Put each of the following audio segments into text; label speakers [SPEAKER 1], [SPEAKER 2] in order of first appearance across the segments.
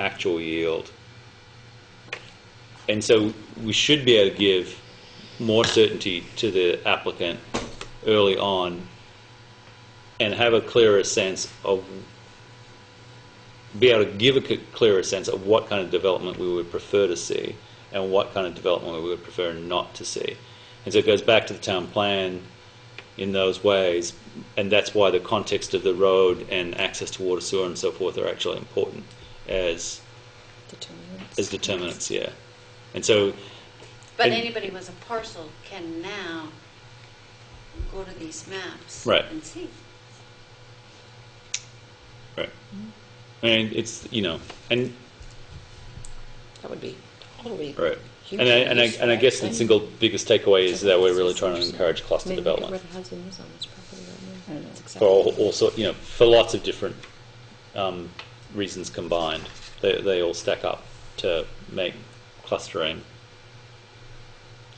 [SPEAKER 1] actual yield. And so we should be able to give more certainty to the applicant early on and have a clearer sense of, be able to give a c- clearer sense of what kind of development we would prefer to see and what kind of development we would prefer not to see. And so it goes back to the town plan in those ways, and that's why the context of the road and access to water, sewer, and so forth are actually important as
[SPEAKER 2] Determinants.
[SPEAKER 1] as determinants, yeah. And so,
[SPEAKER 3] But
[SPEAKER 1] And-
[SPEAKER 3] anybody with a parcel can now go to these maps
[SPEAKER 1] Right.
[SPEAKER 3] and see.
[SPEAKER 1] right, and it's you know, and
[SPEAKER 2] That would be totally.
[SPEAKER 1] right, and I and
[SPEAKER 2] hugely
[SPEAKER 1] I and I
[SPEAKER 2] useful,
[SPEAKER 1] guess the
[SPEAKER 2] think.
[SPEAKER 1] single biggest takeaway is that we're really trying to encourage
[SPEAKER 2] I
[SPEAKER 1] cluster
[SPEAKER 2] mean, look at where
[SPEAKER 1] development
[SPEAKER 2] the housing is on this property right now.
[SPEAKER 4] I know.
[SPEAKER 2] It's
[SPEAKER 1] for all,
[SPEAKER 2] acceptable.
[SPEAKER 1] all sort, you know, for lots of different um, reasons combined. They they all stack up to make clustering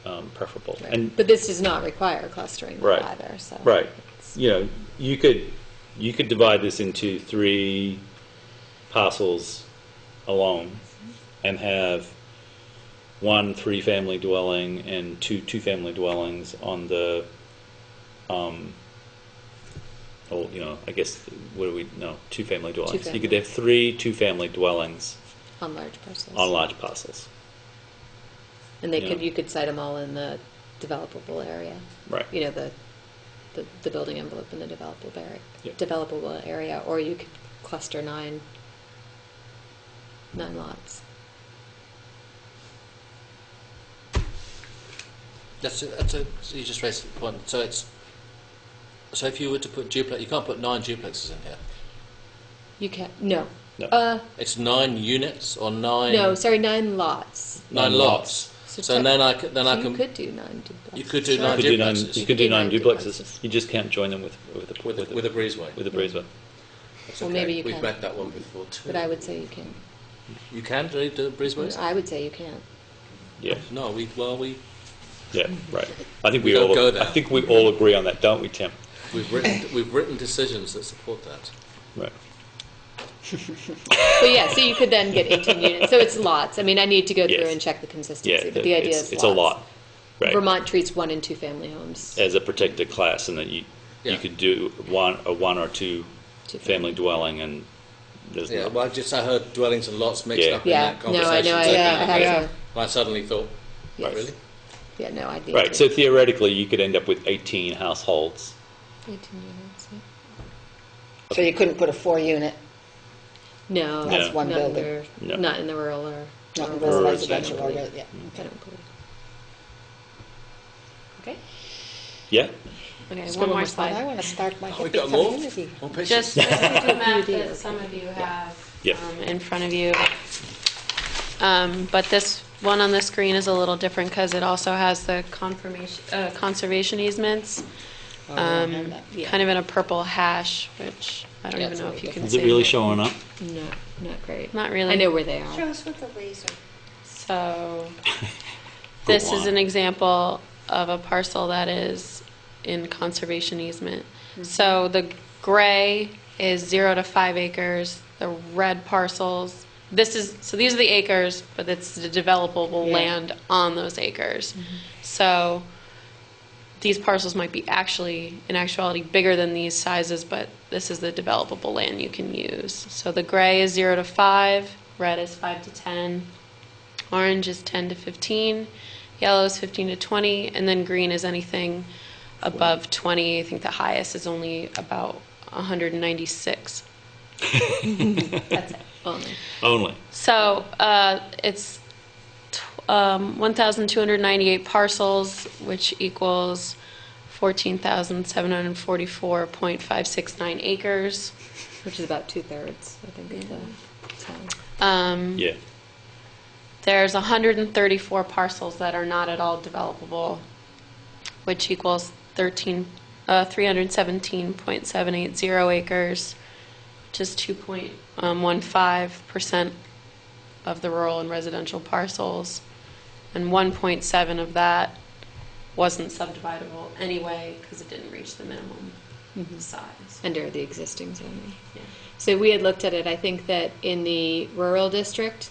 [SPEAKER 1] um, preferable,
[SPEAKER 2] Right.
[SPEAKER 1] and
[SPEAKER 2] But this does not require clustering
[SPEAKER 1] Right.
[SPEAKER 2] either, so.
[SPEAKER 1] Right.
[SPEAKER 2] it's-
[SPEAKER 1] You know, you could, you could divide this into three parcels alone and have one three-family dwelling and two two-family dwellings on the, um, oh, you know, I guess, what do we, no, two-family dwellings. You could
[SPEAKER 2] family.
[SPEAKER 1] have three two-family dwellings
[SPEAKER 2] On large parcels.
[SPEAKER 1] on large parcels.
[SPEAKER 2] And they
[SPEAKER 1] yeah.
[SPEAKER 2] could, you could cite them all in the developable area.
[SPEAKER 1] Right.
[SPEAKER 2] You know, the, the, the building envelope and the developable area,
[SPEAKER 1] Yep.
[SPEAKER 2] developable area, or you could cluster nine, nine lots.
[SPEAKER 5] That's a, that's a, so you just raised the point. So it's so if you were to put duplex, you can't put nine duplexes in here.
[SPEAKER 2] You can't, no.
[SPEAKER 1] No.
[SPEAKER 2] Uh,
[SPEAKER 5] It's nine units or nine.
[SPEAKER 2] no, sorry, nine lots.
[SPEAKER 1] Nine
[SPEAKER 5] nine lots.
[SPEAKER 2] So
[SPEAKER 5] So,
[SPEAKER 2] tech-
[SPEAKER 5] then I can, then
[SPEAKER 2] So
[SPEAKER 5] I can
[SPEAKER 2] You could do nine duplexes.
[SPEAKER 5] You could do
[SPEAKER 2] sure.
[SPEAKER 1] You
[SPEAKER 5] nine
[SPEAKER 1] could do nine,
[SPEAKER 5] duplexes.
[SPEAKER 1] you could do nine
[SPEAKER 2] Nine
[SPEAKER 1] duplexes.
[SPEAKER 2] duplexes.
[SPEAKER 1] You just can't join them with, with a,
[SPEAKER 5] with
[SPEAKER 1] with
[SPEAKER 5] the, with a
[SPEAKER 1] a,
[SPEAKER 5] breezeway.
[SPEAKER 1] with a breezeway.
[SPEAKER 5] That's
[SPEAKER 2] Well,
[SPEAKER 5] okay.
[SPEAKER 2] maybe you
[SPEAKER 5] We've
[SPEAKER 2] can.
[SPEAKER 5] backed that one before too.
[SPEAKER 2] But I would say you can.
[SPEAKER 5] you can do the breezeways.
[SPEAKER 2] I would say you can't.
[SPEAKER 1] Yeah.
[SPEAKER 5] No, we well we
[SPEAKER 1] Yeah, right. I think
[SPEAKER 5] We
[SPEAKER 1] we,
[SPEAKER 5] don't
[SPEAKER 1] all.
[SPEAKER 5] go there.
[SPEAKER 1] I think we all agree on that, don't we, Tim?
[SPEAKER 5] we've written we've written decisions that support that.
[SPEAKER 1] Right.
[SPEAKER 2] So yeah, so you could then get 18 units. So it's lots. I mean, I need to go through
[SPEAKER 1] Yes.
[SPEAKER 2] and check the
[SPEAKER 1] Yeah,
[SPEAKER 2] consistency, but the idea
[SPEAKER 1] it's,
[SPEAKER 2] is
[SPEAKER 1] it's a lot.
[SPEAKER 2] lots.
[SPEAKER 1] Right.
[SPEAKER 2] Vermont treats one and two family homes.
[SPEAKER 1] as a protected class, and that you
[SPEAKER 5] Yeah.
[SPEAKER 1] you could do one a one or two,
[SPEAKER 2] Two
[SPEAKER 1] family
[SPEAKER 2] family.
[SPEAKER 1] dwelling, and there's
[SPEAKER 5] Yeah,
[SPEAKER 1] not-
[SPEAKER 5] well, I just I heard dwellings and lots mixed
[SPEAKER 1] Yeah.
[SPEAKER 5] up
[SPEAKER 2] Yeah.
[SPEAKER 5] in that
[SPEAKER 2] No, I know,
[SPEAKER 5] conversation.
[SPEAKER 2] I-
[SPEAKER 5] so
[SPEAKER 2] yeah,
[SPEAKER 5] then
[SPEAKER 2] I had
[SPEAKER 5] yeah.
[SPEAKER 2] a-
[SPEAKER 5] I suddenly thought,
[SPEAKER 2] Yes.
[SPEAKER 5] really?
[SPEAKER 2] Yeah, no, I'd need
[SPEAKER 1] right.
[SPEAKER 2] to-
[SPEAKER 1] So theoretically, you could end up with 18 households.
[SPEAKER 2] 18 units, yeah.
[SPEAKER 4] So you couldn't put a four-unit,
[SPEAKER 2] No.
[SPEAKER 1] That's
[SPEAKER 4] one
[SPEAKER 2] not in
[SPEAKER 4] building.
[SPEAKER 2] the-
[SPEAKER 1] No. Mm.
[SPEAKER 2] Not in the rural or.
[SPEAKER 4] not in
[SPEAKER 2] or
[SPEAKER 1] rural
[SPEAKER 4] residential, or,
[SPEAKER 2] I don't
[SPEAKER 4] yeah.
[SPEAKER 2] believe. I don't believe.
[SPEAKER 3] Okay.
[SPEAKER 1] Yeah.
[SPEAKER 2] Okay,
[SPEAKER 4] Let's go
[SPEAKER 2] one more slide.
[SPEAKER 4] I want to start my
[SPEAKER 5] Oh, we've
[SPEAKER 4] hippie
[SPEAKER 5] got more.
[SPEAKER 4] community.
[SPEAKER 5] More pictures.
[SPEAKER 6] Just this is the map
[SPEAKER 2] Yeah.
[SPEAKER 6] that some of you have
[SPEAKER 1] Yeah.
[SPEAKER 6] um, in front of you. Um, But this one on the screen is a little different because it also has the confirmation, uh, conservation easements,
[SPEAKER 4] Oh, I have
[SPEAKER 6] um,
[SPEAKER 4] that.
[SPEAKER 6] kind of in a purple hash, which I don't
[SPEAKER 2] Yeah,
[SPEAKER 6] even
[SPEAKER 2] it's
[SPEAKER 6] know
[SPEAKER 2] really
[SPEAKER 6] if you can
[SPEAKER 2] different.
[SPEAKER 1] Is
[SPEAKER 6] see.
[SPEAKER 1] it really
[SPEAKER 6] but-
[SPEAKER 1] showing up?
[SPEAKER 2] No, not great.
[SPEAKER 6] Not really.
[SPEAKER 2] I know where they
[SPEAKER 3] Show
[SPEAKER 2] are.
[SPEAKER 3] us with the laser.
[SPEAKER 6] So,
[SPEAKER 1] Go
[SPEAKER 6] this is
[SPEAKER 1] on.
[SPEAKER 6] an example of a parcel that is in conservation easement. So the gray is zero to five acres, the red parcels, this is, so these are the acres, but it's the developable
[SPEAKER 4] Yeah.
[SPEAKER 6] land on those acres. So, these parcels might be actually, in actuality, bigger than these sizes, but this is the developable land you can use. So the gray is zero to five, red is five to ten, orange is ten to fifteen, yellow is fifteen to twenty, and then green is anything above twenty. I think the highest is only about hundred and ninety-six.
[SPEAKER 2] That's it, only.
[SPEAKER 1] Only.
[SPEAKER 6] So uh, it's tw- um, 1,298 parcels, which equals 14,744.569 acres.
[SPEAKER 2] Which is about two-thirds, I think, of the town. Mm-hmm.
[SPEAKER 6] Um,
[SPEAKER 1] Yeah.
[SPEAKER 6] There's 134 parcels that are not at all developable, which equals 13, uh, 317.780 acres, which is um, 2.15% of the rural and residential parcels. And 1.7 of that wasn't subdividable anyway because it didn't reach the minimum size.
[SPEAKER 2] under the existing zoning.
[SPEAKER 6] Yeah.
[SPEAKER 2] So we had looked at it, I think that in the rural district,